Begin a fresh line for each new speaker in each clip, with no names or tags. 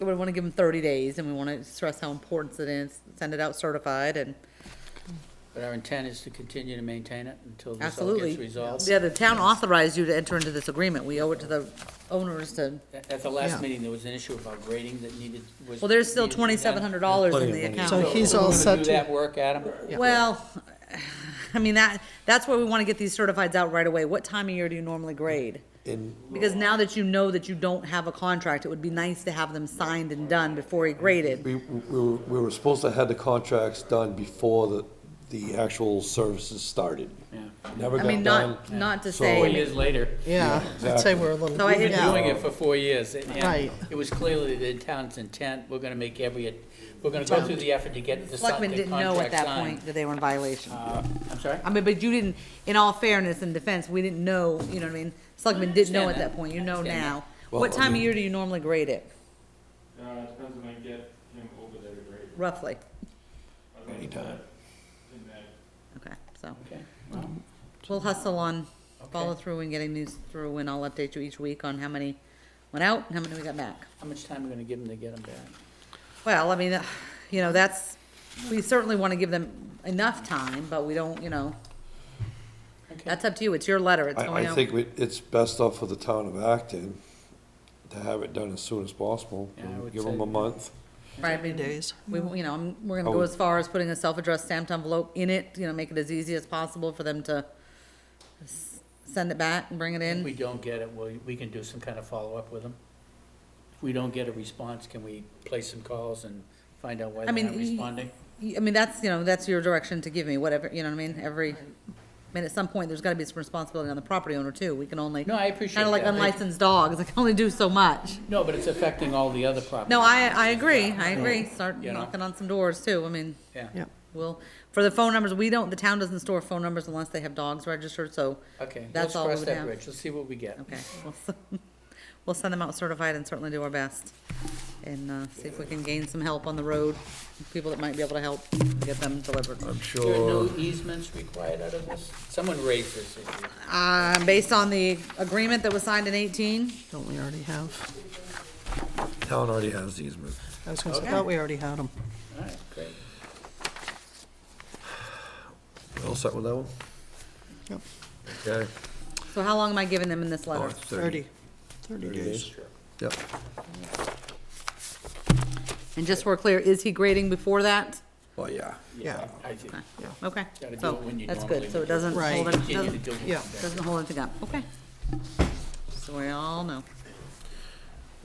we want to give them thirty days, and we want to stress how important it is, send it out certified, and
But our intent is to continue to maintain it until this all
absolutely.
gets resolved.
Yeah, the town authorized you to enter into this agreement, we owe it to the owners to,
At at the
Yeah.
last meeting, there was an issue about grading that needed, was.
well, there's still
needed to be done.
twenty-seven hundred dollars in the account.
So he's all set
Do
to-
that work, Adam?
Well, I mean, that, that's why we want to get these certifieds out right away. What time of year do you normally grade? Because now that you know that you don't have a contract, it would be nice to have them signed and done before he graded.
We, we were, we were supposed to have the contracts done before the, the actual services started. Never
I
got
mean,
done.
not, not to
So-
Four
say,
years later,
Yeah, I'd say we're a little.
So I
we've
hit
been
Yeah.
doing it for four years, and- and
Right.
it was clearly the town's intent, we're gonna make every, we're gonna go through the effort to get the
Selectmen
the
didn't know at
contract
that
signed.
point that they were in violation.
Uh, I'm sorry?
I mean, but you didn't, in all fairness and defense, we didn't know, you know what I mean? Selectmen didn't know at
understand
that
that.
point, you know
understand
now.
Well,
What
I
time of
mean-
year do you normally grade it,
Uh, it depends when I get him over there to grade.
roughly?
Anytime.
In that
Okay, so,
Okay.
we'll hustle on, follow
Okay.
through and getting these through, and I'll update you each week on how many went out and how many we got back.
How much time are we gonna give them to get them back?
Well, I mean, uh, you know, that's, we certainly want to give them enough time, but we don't, you know,
Okay.
that's up to you, it's your letter, it's
I,
going
I
out.
think we- it's best off for the town of Acton to have it done as soon as possible.
Yeah, I would
Give them
say-
a month.
Right, I mean,
Days.
We, you know, I'm- we're gonna
I
go
Oh.
would-
as far as putting a self-addressed stamped envelope in it, you know, make it as easy as possible for them to s- send it back and bring it
If
in.
we don't get it, well, we can do some kind of follow-up with them. If we don't get a response, can we place some calls and find out why
I
they're
mean,
not
y-
responding?
I mean, that's, you know, that's your direction to give me, whatever, you know what I mean, every, I mean, at some point, there's gotta be some responsibility on the property owner too, we can only,
No, I appreciate
kinda like
that.
unlicensed dogs, I can only do so much.
No, but it's affecting all the other properties.
No, I, I agree, I agree, start
You know?
knocking on some doors too, I mean,
Yeah,
Yep.
we'll, for the phone numbers, we don't, the town doesn't store phone numbers unless they have dogs registered, so.
okay. Let's
That's all we
cross
would
that
have.
bridge. Let's see what we get.
Okay, we'll, s- we'll send them out certified and certainly do our best. And, uh, see if we can gain some help on the road, people that might be able to help get them delivered.
I'm
There are
sure,
no easements required out of this? Someone raised this issue.
Uh, based on the agreement that was signed in eighteen,
Don't we already have?
town already has these, but
I was gonna say, I thought we already had them.
All right, great.
all set with that one?
Yep.
Okay.
so how long am I giving them in this
Oh,
letter?
it's
Thirty. Thirty days.
Yep.
And just so we're clear, is he grading before that?
Oh, yeah.
Yeah,
I think,
Okay,
Gotta do
so,
it when you
that's
normally
good, so
do
it
it.
doesn't
Right.
hold, it-
continue to
doesn't,
do it.
yeah.
doesn't hold anything up, okay. So we all know.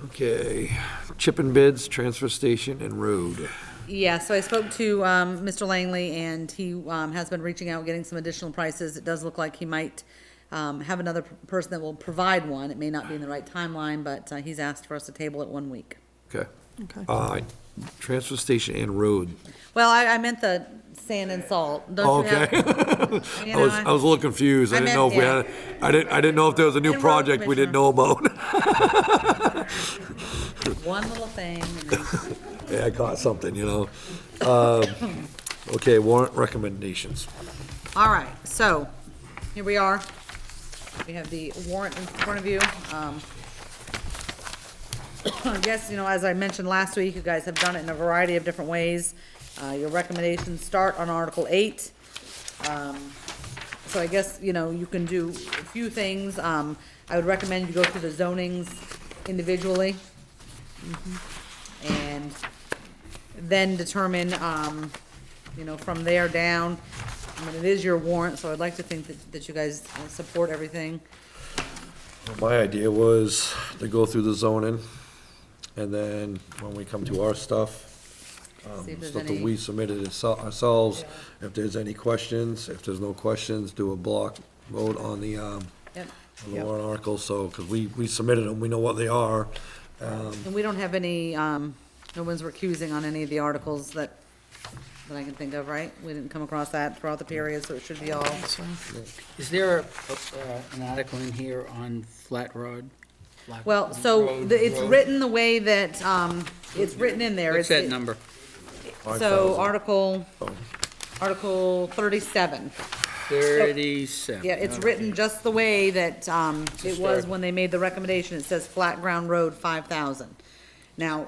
Okay, chipping bids, transfer station and road.
Yeah, so I spoke to um, Mr. Langley, and he um, has been reaching out, getting some additional prices. It does look like he might um, have another p- person that will provide one. It may not be in the right timeline, but uh, he's asked for us to table it one week.
Okay.
okay.
Uh, transfer station and road.
Well, I, I meant the sand and salt. Don't you have-
Oh, Okay.
you
I
know,
was,
I-
I was a little confused. I
I
didn't know if we
meant-
had, I didn't, I didn't know if there was a new
And road
project we didn't know about.
One little thing. and then-
Yeah, I caught something, you know? Um, Okay, warrant recommendations.
All right, so here we are. We have the warrant in front of you. Um, I guess, you know, as I mentioned last week, you guys have done it in a variety of different ways. Uh, Your recommendations start on Article 8. Um, So I guess, you know, you can do a few things. Um, I would recommend you go through the zonings individually Mm-hmm. and then determine, um, you know, from there down. I mean, it is your warrant, so I'd like to think that, that you guys uh, support everything.
My idea was to go through the zoning, and then when we come to our stuff, um,
See if there's
stuff that
any-
we submitted itso- ourselves, if there's any questions, if there's no questions, do a block vote on the, um,
Yep.
on the warrant article, so, because we, we submitted them, we know what they are.
And we don't have any, um, no one's recusing on any of the articles that, that I can think of, right? We didn't come across that throughout the period, so it should be all.
So,
Is there a- uh, an article in here on Flat Road? Flat
Well, so
Road,
the- it's
road?
written the way that, um, it's written in Oh, there.
What's
It's-
that number?
So
Oh,
5,000.
Article,
Oh.
Article thirty-seven.
Thirty-seven.
Yeah, it's written just the way that, um, it was
start.
when they made the recommendation. It says flat ground road, five thousand. Now,